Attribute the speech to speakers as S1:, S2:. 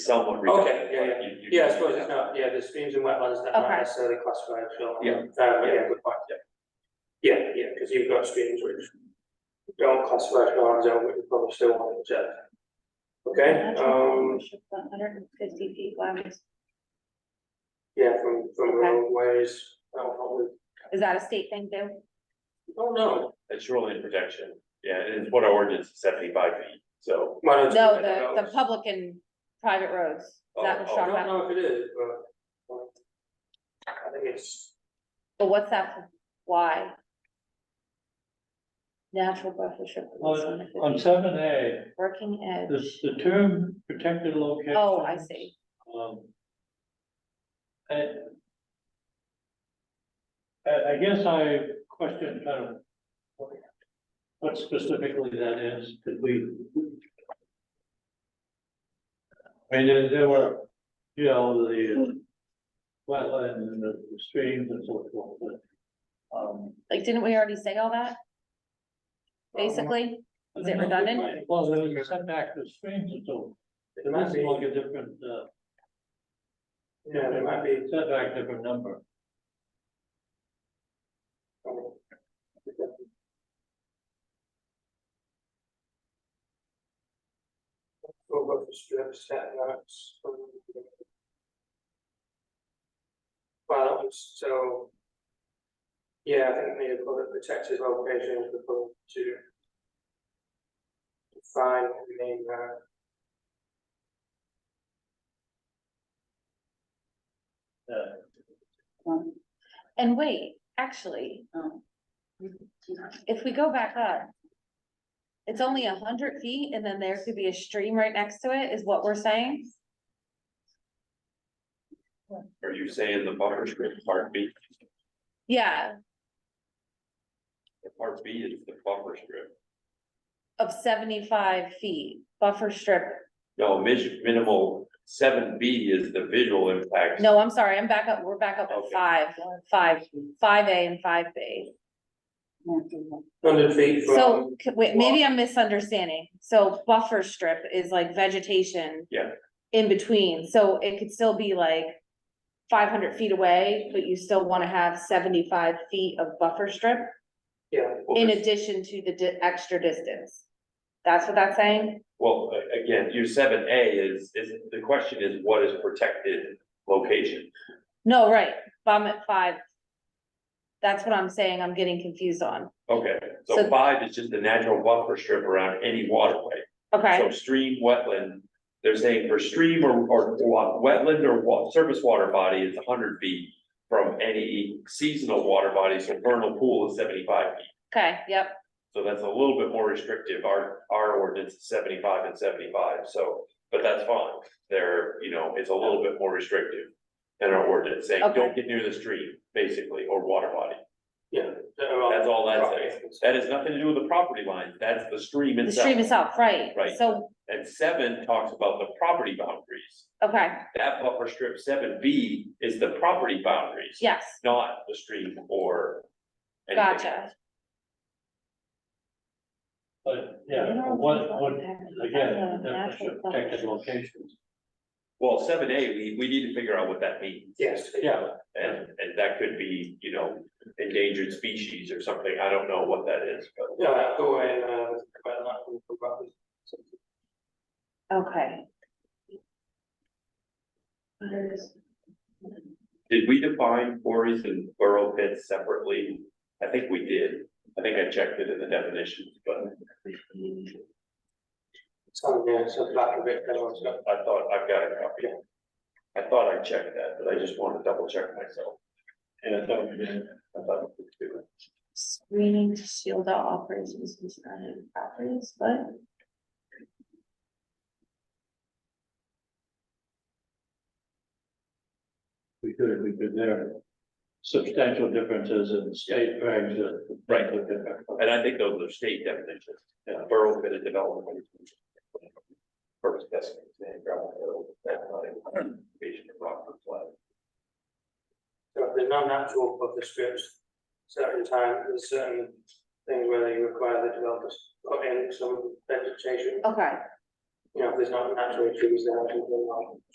S1: somewhat redundant.
S2: Okay, yeah,
S1: but
S2: yeah,
S1: you- you-
S2: yeah, I suppose it's not, yeah, the streams and wetlands that
S3: Okay.
S2: aren't necessarily classified, so.
S1: Yeah.
S2: Uh, yeah, good point, yeah. Yeah, yeah, because you've got streams which don't classify as wetlands, and we probably still want to check. Okay, um,
S3: Hundred and fifty feet wide,
S2: yeah, from, from roadways, that'll probably,
S3: is that a state thing too?
S2: oh, no.
S1: It's shoreline protection, yeah, and it's what our ordinance is seventy-five feet, so.
S2: No,
S3: No, the, the public and private roads, is that what
S1: Oh,
S3: we're
S1: oh,
S2: I
S3: talking
S2: don't
S3: about?
S2: know if it is, but. um, I think it's,
S3: But what's that, for? why? Natural buffer strip.
S4: On, on seven A,
S3: Working
S4: the,
S3: edge,
S4: the term protected location.
S3: oh, I see,
S4: Um. I. I, I guess I question kind of. what- What specifically that is, did we? I mean, there, there were, you know, the wetlands and the streams and so forth, but. Um.
S3: like, didn't we already say all that,
S1: Oh,
S2: um,
S3: basically? Is it redundant?
S4: Well, there was a setback to streams and so.
S2: it
S4: It
S2: might
S4: might
S2: be,
S4: be like a different, uh,
S2: yeah, it might be.
S4: setback, different number.
S2: Over the strip setbacks. um, Well, that was so. Yeah, I think the public protected location is proposed to. Define the main, uh,
S4: Uh,
S3: And wait, actually. If we go back up. It's only a hundred feet and then there could be a stream right next to it, is what we're saying?
S1: Are you saying the buffer strip, part B,
S3: Yeah,
S1: part B is the buffer strip?
S3: of seventy-five feet buffer strip.
S1: No, mis- minimal, seven B is the visual impact.
S3: No, I'm sorry, I'm back up, we're back up at
S1: Okay.
S3: five, five, five A and five B.
S2: hundred feet from.
S3: So, c- wait, maybe I'm misunderstanding. So buffer strip is like vegetation.
S1: Yeah.
S3: In between, so it could still be like five hundred feet away, but you still wanna have seventy-five feet of buffer strip
S2: Yeah,
S1: Well,
S3: in
S1: there's-
S3: addition to the di- extra distance. That's what that's saying?
S1: Well, a- again, your seven A is, is, the question is what is protected location?
S3: No, right, but I'm at five. That's what I'm saying, I'm getting confused on.
S1: Okay, so
S3: So-
S1: five is just the natural buffer strip around any waterway.
S3: Okay,
S1: So stream, wetland, they're saying for stream or, or wa- wetland or wa- surface water body is hundred feet from any seasonal water body, so vernal pool is seventy-five feet.
S3: okay, yep,
S1: So that's a little bit more restrictive. Our, our ordinance is seventy-five and seventy-five, so, but that's fine. There, you know, it's a little bit more restrictive than our ordinance, saying, don't get near the stream, basically, or water body.
S2: yeah. they're all-
S1: That's all that says. That has nothing to do with the property line. That's the stream
S3: the
S1: itself.
S3: stream itself, right,
S1: Right.
S3: so,
S1: And seven talks about the property boundaries.
S3: okay,
S1: That buffer strip seven B is the property boundaries.
S3: yes,
S1: Not the stream or. anything
S3: gotcha.
S1: else.
S4: But, yeah, what, what, again, definition of protected locations.
S1: Well, seven A, we, we need to figure out what that means.
S2: Yes.
S4: Yeah,
S1: And, and that could be, you know, endangered species or something. I don't know what that is, but.
S2: Yeah, go away, uh, quite a lot of problems.
S3: Okay.
S1: Did we define quarries and burrow pits separately? I think we did. I think I checked it in the definitions, but
S2: Some, yeah, so lack of it, everyone's got.
S1: I thought I've got a copy. I thought I checked that, but I just want to double check myself. And I thought we did. I thought we did.
S3: Screening to shield all operations from surrounding properties, but.
S4: we could, we could, there are substantial differegs in state regs that.
S1: Right.
S4: that differ.
S1: And I think those are state definitions, uh, borough bit of development. First best. man, gravel hill, that kind of Invasion of Rockford flood.
S2: So if there's no natural buffer strips, certain times, there's certain things where they require the developers to put in some vegetation,
S3: Okay,
S2: you you know, if there's not naturally trees there, people will.